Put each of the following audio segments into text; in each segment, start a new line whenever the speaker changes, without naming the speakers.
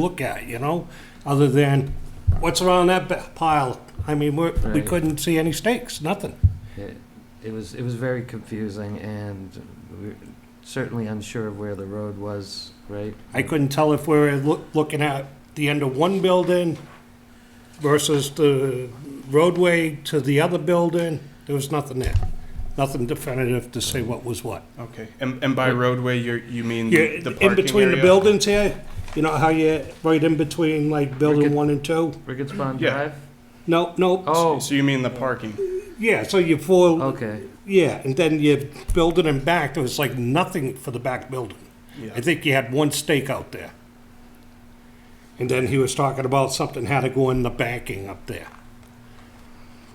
look at, you know, other than what's around that ba- pile. I mean, we're, we
Right.
couldn't see any stakes, nothing.
It, it was, it was very confusing and we were certainly unsure of where the road was, right?
I couldn't tell if we were loo- looking at the end of one building versus the roadway to the other building. There was nothing there, nothing definitive to say what was what.
Okay, and, and by roadway, you you mean
Yeah,
Mm-hmm. the parking
in between the
area?
buildings here, you know how you, right in between like building
Wicked.
one and two?
Ricketts Pond
Yeah.
Drive?
No, no,
Oh,
So you mean the parking?
yeah, so you four,
okay,
Yeah, and then you build it in back, there was like nothing for the back building.
Yeah.
I think you had one stake out there. And then he was talking about something had to go in the banking up there.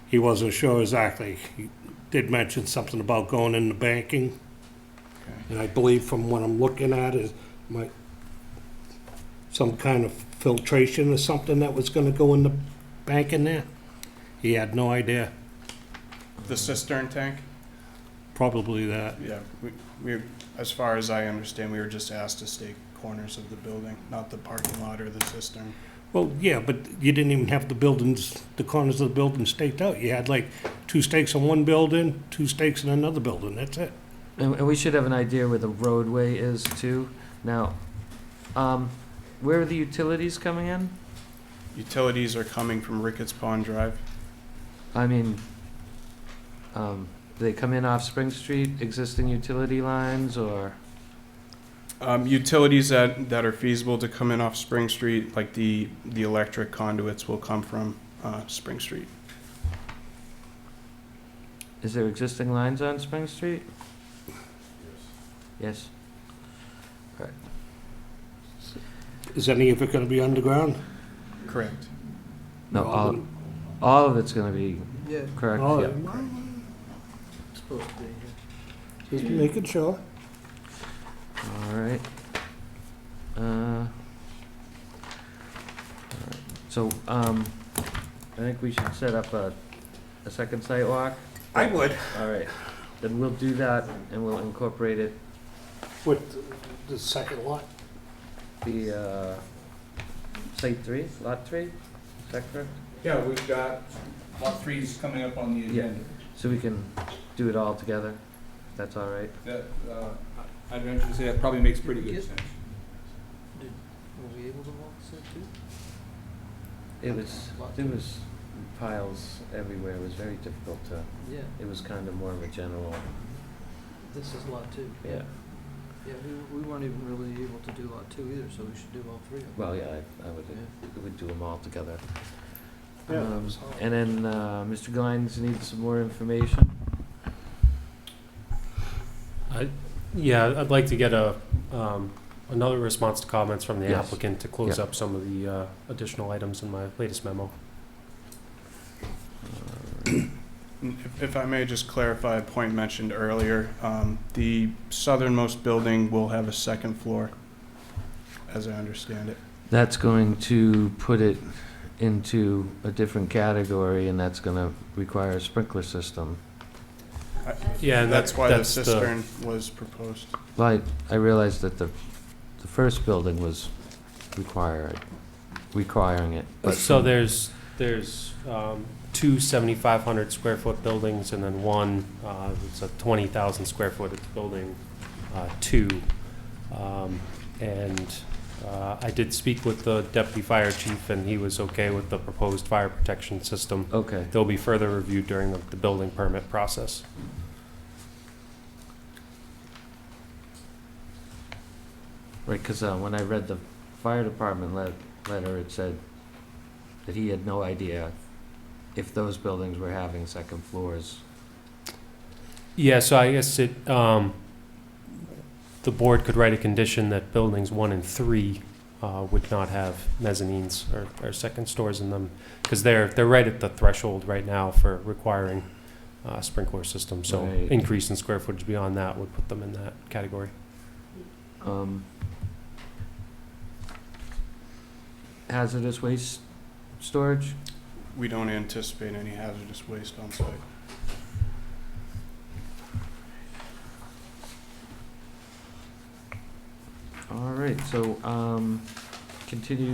He wasn't sure exactly. He did mention something about going in the banking. And I believe from what I'm looking at is my, some kind of filtration or something that was gonna go in the bank in there. He had no idea,
The cistern tank?
probably that.
Yeah, we, we, as far as I understand, we were just asked to stake corners of the building, not the parking lot or the cistern.
Well, yeah, but you didn't even have the buildings, the corners of the building staked out. You had like two stakes in one building, two stakes in another building, that's it.
and, and we should have an idea where the roadway is too. Now, um, where are the utilities coming in?
Utilities are coming from Ricketts Pond Drive.
I mean, um, do they come in off Spring Street, existing utility lines, or?
Um, utilities that, that are feasible to come in off Spring Street, like the, the electric conduits will come from, uh, Spring Street.
Is there existing lines on Spring Street? Yes.
Is any of it gonna be underground?
Correct.
No,
All
all,
of it?
all of it's gonna be
Yeah,
correct,
All
yeah.
of it.
it's supposed to be.
Just making sure.
All right. Uh, all right. So, um, I think we should set up a, a second sidewalk.
I would.
All right, then we'll do that and we'll incorporate it,
With the second lot?
the, uh, site three, lot three, is that correct?
Yeah, we've got lot three's coming up on the
Yeah.
agenda.
So we can do it all together, if that's all right?
That, uh, I'd venture to say that probably makes pretty good sense.
Were we able to walk this too?
It was, there was piles everywhere, it was very difficult to,
Yeah,
it was kind of more of a general,
this is lot two.
yeah,
Yeah, we, we weren't even really able to do lot two either, so we should do all three of them.
well, yeah, I, I would, we would do them all together.
Yeah,
Um,
so-
And then, uh, Mr. Glines needs some more information.
Yeah, I'd like to get a, um, another response to comments from the
Yes.
applicant to close
Yeah.
up some of the, uh, additional items in my latest memo.
Uh,
If if I may just clarify a point mentioned earlier, um, the southernmost building will have a second floor, as I understand it.
That's going to put it into a different category, and that's gonna require a sprinkler system.
Yeah, and
That's
that-
why the
that's the-
cistern was proposed.
But I realized that the, the first building was required, requiring it. but- um,
So there's, there's, um, two seventy-five hundred square foot buildings and then one, uh, it's a twenty thousand square foot building, uh, two. Um, and, uh, I did speak with the deputy fire chief and he was okay with the proposed fire protection system.
Okay,
They'll be further reviewed during the, the building permit process.
right, because when I read the fire department let, letter, it said that he had no idea if those buildings were having second floors.
Yeah, so I guess it, um, the board could write a condition that buildings one and three, uh, would not have mezzanines or, or second stores in them. Cause they're, they're right at the threshold right now for requiring, uh, sprinkler systems. So
Right.
increase in square footage beyond that would put them in that category.
Um, hazardous waste storage?
We don't anticipate any hazardous waste on site.
All right, so, um, continue